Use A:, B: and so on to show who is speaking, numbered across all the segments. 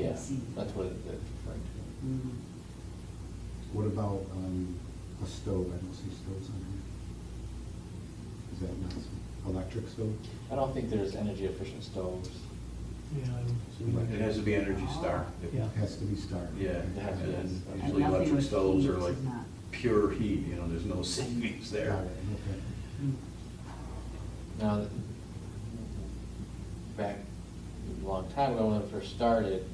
A: exceed.
B: That's what it- that's referring to.
A: Mm.
C: What about um, a stove? I don't see stoves on here. Is that not some electric stove?
B: I don't think there's energy efficient stoves.
D: Yeah, I don't-
E: It has to be Energy Star.
D: Yeah.
C: Has to be starred.
E: Yeah,
B: Yeah, yes.
E: and usually
A: And nothing
E: electric
A: with
E: stoves are
A: heat
E: like
A: is not-
E: pure heat, you know, there's no savings there.
C: Got it, okay.
A: Mm.
B: Now, th- back a long time ago, when it first started,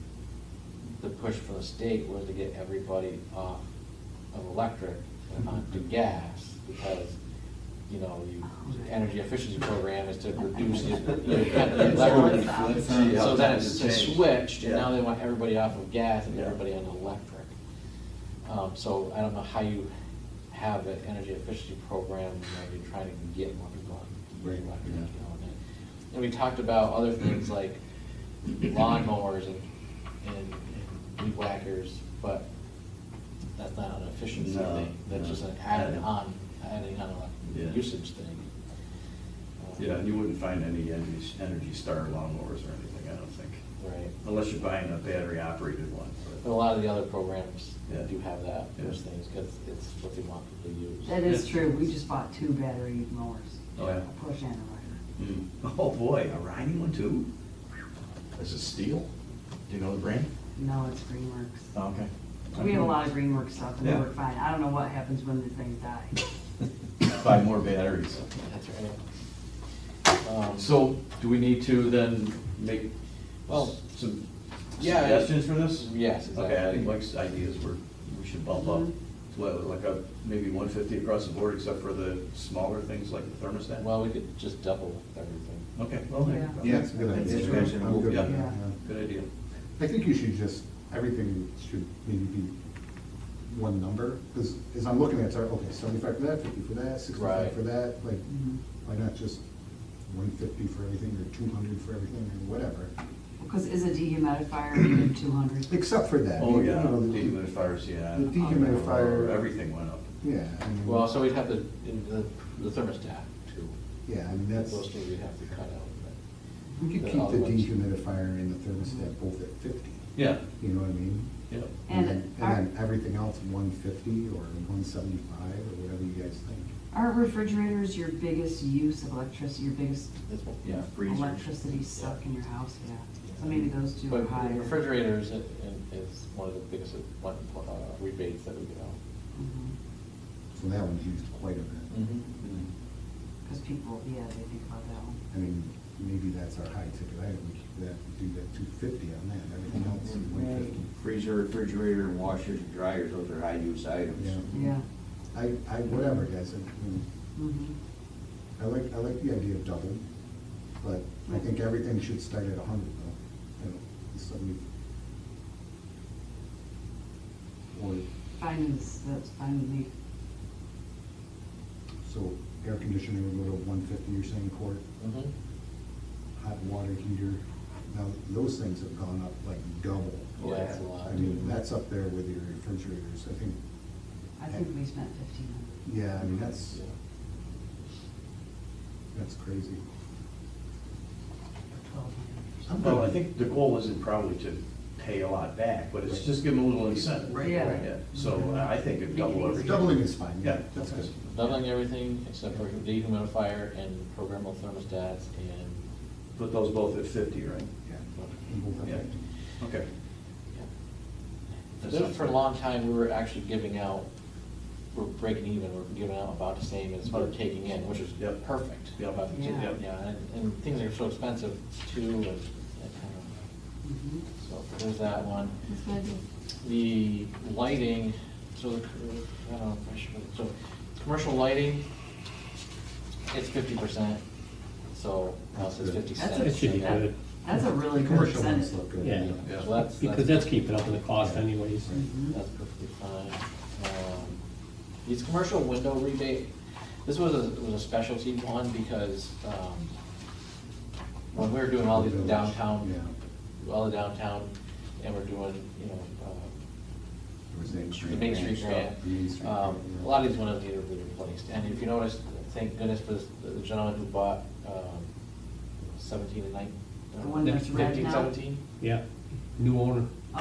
B: the push from the state was to get everybody off of electric and onto gas, because, you know, you, the energy efficiency program is to reduce the- the.
A: That's
B: electric.
A: how it's
E: Yeah.
B: So then it's
E: Yeah.
B: it's switched, and now
E: Yeah.
B: they want everybody off of gas and
E: Yeah.
B: everybody on electric. Um, so I don't know how you have an energy efficiency program when you're trying to get more people on
C: Right,
B: electric. you
E: yeah.
B: know, and- And we talked about other things like lawnmowers and, and and weed whackers, but that's not an efficiency
E: No,
B: thing. That's
E: no.
B: just an added
E: Added.
B: on, adding on
E: Yeah.
B: a usage thing. Um,
E: Yeah, and you wouldn't find any Energy Energy Star lawnmowers or anything, I don't think,
B: Right.
E: unless you're buying a battery-operated one.
B: But a lot of the other programs
E: Yeah.
B: do have that, those
E: Yeah.
B: things, because it's what they want people to use.
A: That is true, we just bought two battery mowers.
E: Oh, yeah.
A: A push and a rider.
E: Hmm. Oh, boy, a riding one too? Is it steel? Do you know the brand?
A: No, it's Greenworks.
E: Oh, Okay.
A: We have a lot of Greenworks stuff and they
E: Yeah.
A: work fine. I don't know what happens when the things die.
E: Buy more batteries.
B: That's right. Um,
E: So, do we need to then make
B: Well,
E: s- some
B: yeah, I-
E: suggestions for this?
B: Yes,
E: Okay, I think
B: exactly. Mm-hmm.
E: Mike's ideas were, we should bump up,
A: Mhm.
E: to what, like a, maybe one fifty across the board, except for the smaller things like the thermostat?
B: Well, we could just double everything.
E: Okay, well, there you go.
C: Yeah, that's a good
A: That's
C: idea.
A: true.
C: I'm good with
E: Yeah.
C: that, yeah.
E: Good idea.
C: I think you should just, everything should maybe be one number, because as I'm looking at it, it's like, okay, seventy-five for that, fifty for that,
B: Right.
C: sixty-five for that, like,
A: Mhm.
C: why not just one fifty for everything, or two hundred for everything, or whatever?
A: Because is a dehumidifier even two hundred?
C: Except for that.
E: Oh,
C: you
E: yeah,
C: know, the-
E: dehumidifiers, yeah.
C: The dehumidifier-
E: Everything went up.
C: Yeah. I mean,
B: Well, so we'd have the, in the the thermostat too.
C: Yeah, I mean, that's,
B: Those two we'd have to cut out.
C: we could
B: the
C: keep the
B: other ones.
C: dehumidifier and the thermostat both at fifty,
E: Yeah,
C: you know what I mean?
E: yeah.
A: And
C: then-
A: our-
C: And then everything else, one fifty or one seventy-five, or whatever you guys think.
A: Are refrigerators your biggest use of electricity, your biggest
B: That's what-
E: Yeah, freezers.
A: electricity suck in your house? Yeah. So maybe those two are
B: But
A: higher.
B: refrigerators i- i- is one of the biggest uh, rebates that we get out.
A: Mhm.
C: So that one's used quite a
B: Mm.
C: bit.
B: Mm-hmm.
A: Cause people, yeah, they think about that one.
C: I mean, maybe that's our high ticket item, we keep that, do that two fifty on that, everything else is one fifty.
F: Freezer, refrigerator, washers, and dryers, those are high-use items.
C: Yeah.
E: Mm-hmm.
A: Yeah.
C: I, I, whatever, guys, I, mean,
A: Mhm.
C: I like, I like the idea of double, but I think everything should start at a hundred though, you know, seventy. Or,
A: Fine is, that's fine with me.
C: so air conditioning would go to one fifty, you're saying, Court,
B: Mhm.
C: hot water heater, now, those things have gone up like double.
B: Yeah, Oh, that's a lot.
C: I mean, that's up there with your refrigerators, I think,
A: I think we spent fifteen hundred.
C: yeah, I mean, that's,
B: Yeah.
C: that's crazy.
A: Twelve hundred.
C: I'm
E: Well,
C: good.
E: I think the goal isn't probably to pay a lot back, but it's just give them a little incentive.
C: Right,
A: Yeah.
C: right.
E: So uh, I think it double
A: Make it
E: everything.
C: Doubling is fine, yeah,
E: Yeah.
C: that's good.
B: Doubling everything except for dehumidifier and programmable thermostats and,
E: Put those both at fifty, right?
C: Yeah. And both of
E: Yeah.
C: them.
E: Okay.
B: yeah. There- For a long time, we were actually giving out, we're breaking even, we're giving out about the same as we're taking in, which is
E: Yep.
B: perfect.
E: Yep.
B: About the two-
A: Yeah. Yep.
B: Yeah, and, and things are so expensive too, and, and, um,
A: Mhm.
B: so there's that one.
A: That's what I do.
B: The lighting, so the, I don't know, if I should, so, commercial lighting, it's fifty percent, so, now it says fifty
A: That's
B: cents.
A: a-
D: It should be
A: that-
D: good.
A: That's a really good
C: Commercial ones
A: percentage.
C: look good.
D: Yeah.
E: Yeah.
B: So that's.
D: Because that's keeping up with the cost anyways.
A: Mhm.
B: That's perfectly fine. Um, These commercial window rebate, this was a, was a specialty one because, um, when we were doing all the
C: Village,
B: downtown,
C: yeah.
B: all the downtown, and we're doing, you know, uh,
C: Or is that
B: the Main Street grant,
C: The Main Street
B: um,
C: grant,
B: a
C: yeah.
B: lot of these windows need to be replaced. And if you notice, thank goodness for this- the gentleman who bought, um, seventeen and nineteen.
A: The one that's red now?
B: Fifteen, seventeen?
D: Yeah, new owner.